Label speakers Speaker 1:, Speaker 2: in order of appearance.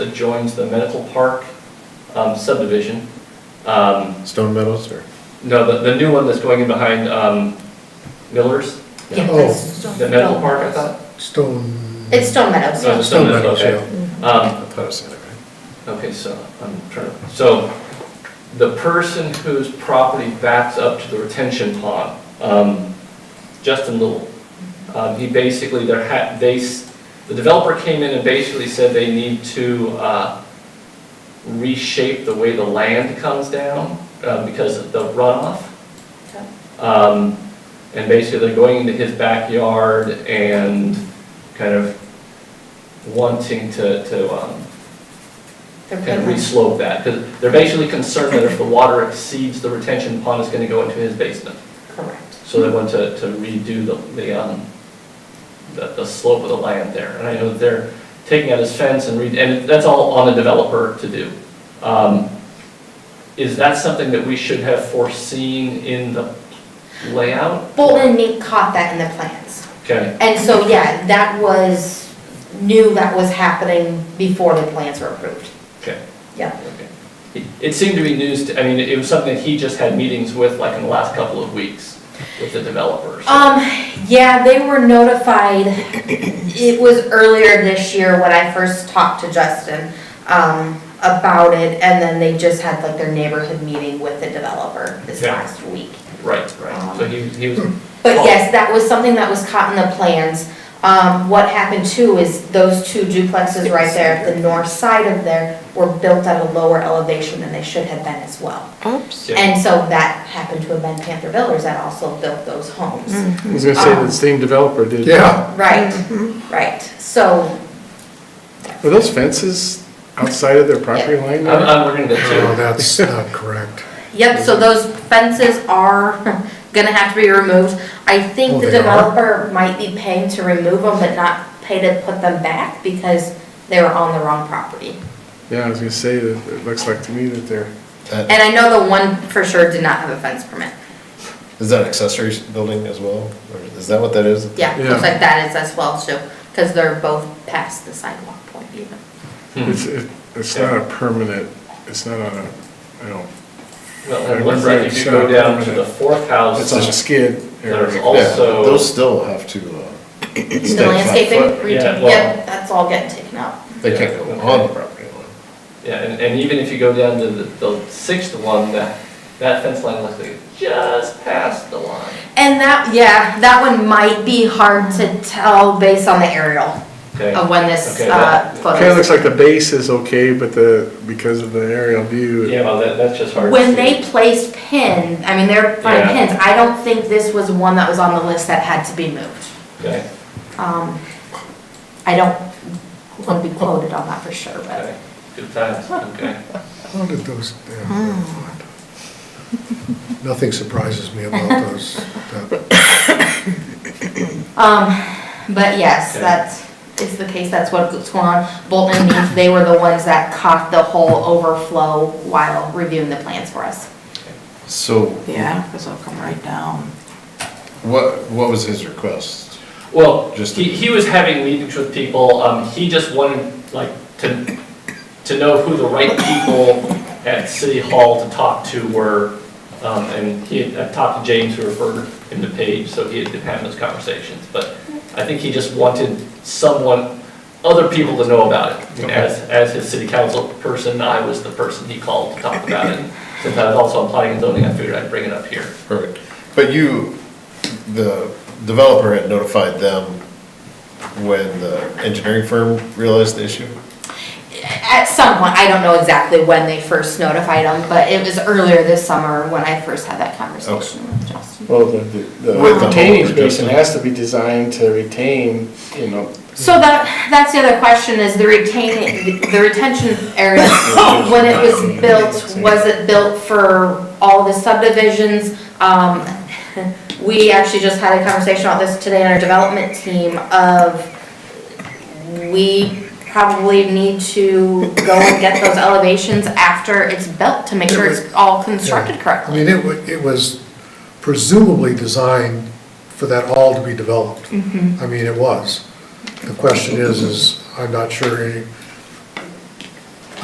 Speaker 1: that joins the Medical Park um, subdivision. Um,
Speaker 2: Stone Meadows or?
Speaker 1: No, the, the new one that's going in behind um, Miller's,
Speaker 3: Yeah,
Speaker 2: Oh.
Speaker 3: that's
Speaker 1: the Medical Park, I thought?
Speaker 2: Oh, Stone.
Speaker 3: It's Stone Meadows,
Speaker 1: No,
Speaker 3: yeah.
Speaker 1: just Stone Meadows,
Speaker 2: Meadows,
Speaker 1: okay.
Speaker 2: yeah.
Speaker 1: Um,
Speaker 2: I thought I said it right.
Speaker 1: Okay, so, I'm trying to, so, the person whose property backs up to the retention pond, um, Justin Little, um, he basically, there had, they, s- the developer came in and basically said they need to, uh, reshape the way the land comes down, uh, because of the runoff. Um, and basically, they're going into his backyard and kind of wanting to, to, um,
Speaker 3: They're
Speaker 1: kind of
Speaker 3: pretty much-
Speaker 1: re-slope that, because they're basically concerned that if the water exceeds the retention pond, it's gonna go into his basement.
Speaker 3: Correct.
Speaker 1: So they want to, to redo the, the, um, the, the slope of the land there. And I know that they're taking out his fence and re, and that's all on the developer to do. Um, Is that something that we should have foreseen in the layout?
Speaker 3: Bolton and Mink caught that in the plans.
Speaker 1: Okay,
Speaker 3: And so, yeah, that was, knew that was happening before the plans were approved.
Speaker 1: okay.
Speaker 3: Yeah.
Speaker 1: Okay. It- It seemed to be news, to I mean, it was something that he just had meetings with, like, in the last couple of weeks with the developers.
Speaker 3: Um, yeah, they were notified, it was earlier this year when I first talked to Justin, um, about it, and then they just had like their neighborhood meeting with the developer this
Speaker 1: Yeah.
Speaker 3: last week.
Speaker 1: Right, right, so he, he was,
Speaker 3: But yes, that was something that was caught in the plans. Um, what happened too is those two duplexes right there, the north side of there, were built at a lower elevation than they should have been as well.
Speaker 4: Oops.
Speaker 1: yeah,
Speaker 3: And so that happened to have been Panther Builders that also built those homes.
Speaker 2: Mm-hmm.
Speaker 5: I was gonna say
Speaker 3: Um,
Speaker 5: that the same developer did.
Speaker 2: Yeah,
Speaker 3: Right, right, so,
Speaker 2: were those fences outside of their property line?
Speaker 1: I'm,
Speaker 2: there?
Speaker 1: I'm learning
Speaker 6: No,
Speaker 1: that
Speaker 6: Oh, that's not correct.
Speaker 3: yep,
Speaker 6: Mm-hmm.
Speaker 3: so those fences are gonna have to be removed. I
Speaker 6: Oh,
Speaker 3: think the
Speaker 6: they are?
Speaker 3: developer might be paying to remove them, but not pay to put them back because they were on the wrong property.
Speaker 2: Yeah, I was gonna say that it looks like to me that they're,
Speaker 3: And I know the one for sure did not have a fence permit.
Speaker 7: Is that accessory building as well? Or is that what that is?
Speaker 3: Yeah,
Speaker 2: Yeah.
Speaker 3: looks like that is as well too, because they're both past the sidewalk point even.
Speaker 1: too.
Speaker 2: it's, it- it's not a permanent, it's not on a, I don't,
Speaker 1: Well, and looks like if you go down to the fourth
Speaker 2: it's on a
Speaker 1: house,
Speaker 2: skid
Speaker 1: there's
Speaker 2: area.
Speaker 7: Yeah,
Speaker 1: also.
Speaker 7: those still have to, uh,
Speaker 3: The
Speaker 7: stay five
Speaker 3: landscaping,
Speaker 7: foot.
Speaker 3: reta-
Speaker 1: Yeah, well-
Speaker 3: yep, that's all getting taken out.
Speaker 7: They can't go on the property line.
Speaker 1: Yeah, and, and even if you go down to the, the sixth one, that, that fence line looks like it just past the line.
Speaker 3: And that, yeah, that one might be hard to tell based on the aerial
Speaker 1: Okay,
Speaker 3: of when this,
Speaker 1: Okay,
Speaker 3: uh,
Speaker 1: that-
Speaker 2: Kinda
Speaker 3: photo.
Speaker 2: looks like the base is okay, but the, because of the aerial view.
Speaker 1: yeah, well, that, that's just hard to
Speaker 3: When
Speaker 1: see.
Speaker 3: they placed pin, I mean, they're fine
Speaker 1: Yeah.
Speaker 3: pins, I don't think this was one that was on the list that had to be moved.
Speaker 1: Okay,
Speaker 3: Um, I don't want to be quoted on that for sure, but.
Speaker 1: okay, good times, okay.
Speaker 6: How did those, damn, nothing surprises me about those. that-
Speaker 3: Um, but yes,
Speaker 1: Okay.
Speaker 3: that's, is the case, that's what's going on. Bolton and Meath, they were the ones that caught the whole overflow while reviewing the plans for us.
Speaker 7: So
Speaker 4: Yeah, because it'll come right down.
Speaker 7: what, what was his request?
Speaker 1: Well,
Speaker 7: Just-
Speaker 1: he, he was having meetings with people, um, he just wanted, like, to, to know who the right people at City Hall to talk to were, um, and he had, I talked to James, who referred him to Paige, so he had been having those conversations, but I think he just wanted someone, other people to know about it. As, as his city council person, I was the person he called to talk about it, since I was also applying and zoning, I figured I'd bring it up here.
Speaker 7: Perfect. But you, the developer had notified them when the engineering firm realized the issue?
Speaker 3: At some point, I don't know exactly when they first notified them, but it was earlier this summer when I first had that conversation with Justin.
Speaker 2: Well, the, the
Speaker 7: With the
Speaker 2: retaining
Speaker 7: whole
Speaker 2: basin
Speaker 7: adjustment.
Speaker 2: has to be designed to retain, you know,
Speaker 3: So that, that's the other question is the retaining, the retention area, when it was built, was it built for all the subdivisions? Um, we actually just had a conversation about this today in our development team of we probably need to go and get those elevations after it's built to make sure it's all constructed
Speaker 6: I
Speaker 3: correctly.
Speaker 6: mean, it wa, it was presumably designed for that all to be developed. I mean, it was. The question is, is I'm not sure any-